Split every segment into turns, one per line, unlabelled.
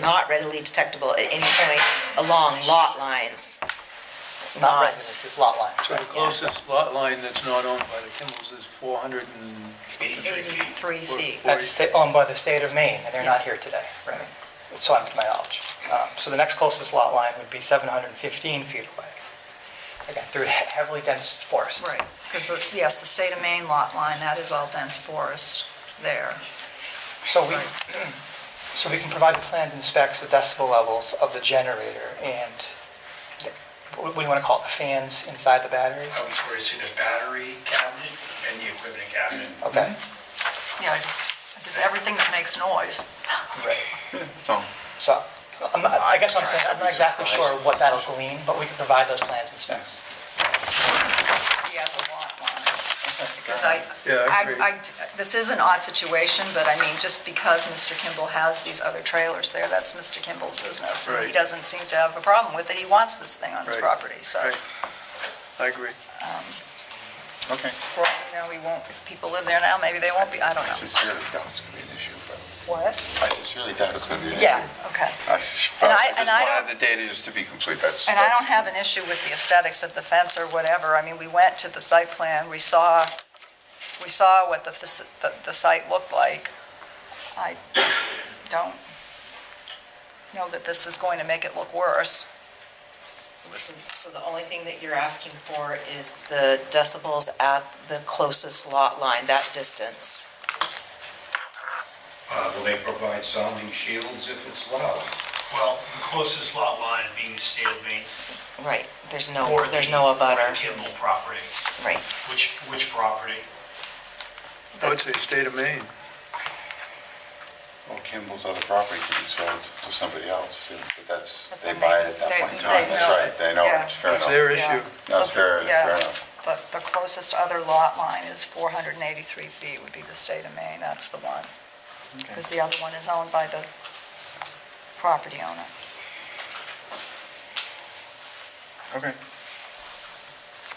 not readily detectable at any point along lot lines.
Not
Not-
residence, it's lot lines,
So the
right?
closest lot line that's not owned by the Kimbells is 483 feet.
83 feet.
That's sta- owned by the state of Maine, and they're not here today, right? So I'm, to my knowledge. Um, So the next closest lot line would be 715 feet away. Again, through he- heavily dense forest.
Right, because, yes, the state of Maine lot line, that is all dense forest there.
So we, so we can provide the plans and specs, the decibel levels of the generator and, the- what do you want to call it, the fans inside the battery?
I was raising a battery cabinet and the equipment cabinet.
Okay.
Yeah, because everything that makes noise.
Right.
So,
So I'm not- I guess what I'm saying, I'm not exactly sure what that'll glean, but we can provide those plans and specs.
Yeah, the lot line. Because I,
Yeah, I agree.
I, I- this is an odd situation, but I mean, just because Mr. Kimball has these other trailers there, that's Mr. Kimball's business. and He
Right.
doesn't seem to have a problem with it. He wants this thing on his
Right.
property, so.
Right. I agree.
okay.
For, all we know, we won't, if people live there now, maybe they won't be, I don't
I
know.
sincerely doubt it's going to be an issue, but
What?
I sincerely doubt it's going to be an issue.
Yeah, okay.
I s-
And
but
I-
I
and I
just wanted the data just to be complete, that's.
And I don't
that's-
have an issue with the aesthetics of the fence or whatever. I mean, we went to the site plan, we saw, we saw what the, faci- the, the site looked like. I don't know that this is going to make it look worse.
So the only thing that you're asking for is the decibels at the closest lot line, that distance.
Uh, Will they provide sounding shields if it's loud?
Well, the closest lot line being the state of Maine's.
Right, there's
or
no,
the-
there's no
or
abutter,
Kimball property.
right.
Which, which property?
I would say state of Maine.
Well, Kimball's other property could be sold to somebody else, too, but that's, they buy it at that
They-
point in
they
time, that's
know
right,
that-
they know
yeah.
it, fair
It's
enough.
their
Yeah.
issue.
No, it's fair,
Yeah.
fair enough.
But the closest other lot line is 483 feet would be the state of Maine, that's the one. Because the other one is owned by the property owner.
Okay.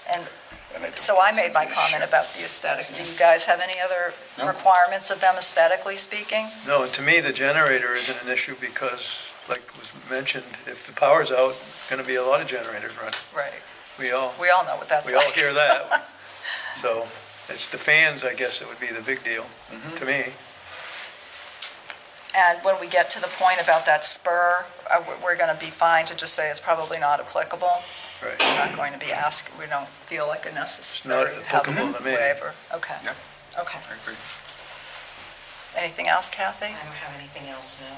And
And I don't
So I
think
made
it's
my
an
comment
issue.
about the aesthetics. Do you guys have any other
No.
requirements of them aesthetically speaking?
No, and to me, the generator isn't an issue because, like was mentioned, if the power's out, gonna be a lot of generators running.
Right.
We all,
We all know what that's
we
like.
all hear that. So it's the fans, I guess, that would be the big deal,
Mm-hmm.
to me.
And when we get to the point about that spur, uh, we- we're going to be fine to just say it's probably not applicable.
Right.
We're not going to be asked, we don't feel like a necessary
It's not
have
applicable to me.
waiver. Okay.
Yep.
Okay.
I agree.
Anything else, Kathy?
I don't have anything else, no.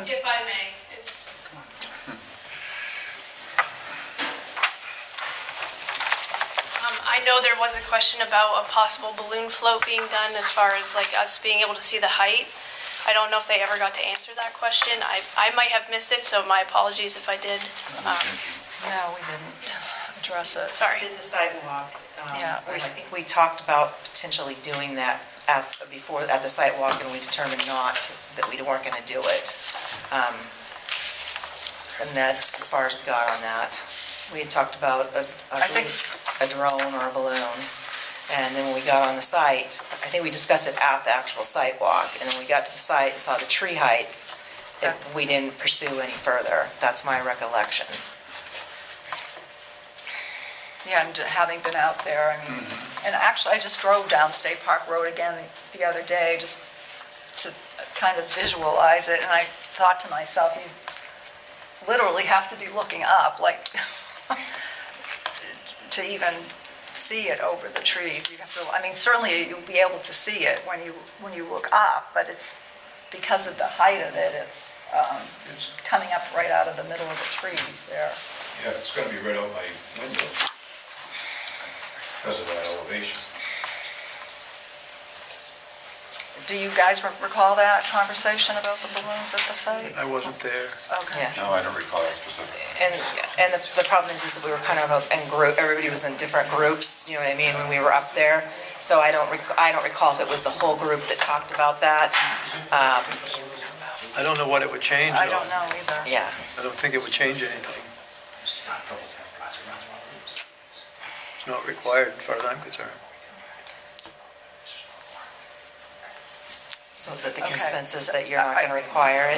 Um,
If I may, um, I know there was a question about a possible balloon float being done as far as like us being able to see the height. I don't know if they ever got to answer that question. I, I might have missed it, so my apologies if I did. Um,
No, we didn't address it.
Sorry.
Did the sidewalk. um,
Yeah,
I
we-
think we talked about potentially doing that at, before, at the sidewalk, and we determined not, that we weren't going to do it. Um, And that's as far as we got on that. We had talked about a, a-
I think-
a drone or a balloon, and then when we got on the site, I think we discussed it at the actual sidewalk, and then we got to the site and saw the tree height, and
That's-
we didn't pursue any further. That's my recollection.
Yeah, and having been out there, I mean, and actually, I just drove down State Park Road again the- the other day, just to kind of visualize it, and I thought to myself, you literally have to be looking up, like, to even see it over the trees. You have to, I mean, certainly you'll be able to see it when you, when you look up, but it's, because of the height of it, it's um,
It's,
coming up right out of the middle of the trees there.
yeah, it's gonna be right out my window because of that elevation.
Do you guys re- recall that conversation about the balloons at the site?
I wasn't there.
Okay.
Yeah.
No, I don't recall that specific.
And, and the, the problem is, is that we were kind of in group, everybody was in different groups, you know what I mean, when we were up there. So I don't, rec- I don't recall if it was the whole group that talked about that. Um,
I don't know what it would change, though.
I don't know either.
Yeah,
I don't think it would change anything. It's not required, as far as I'm concerned.
So is it the
Okay.
consensus that you're not
I-
going to require it?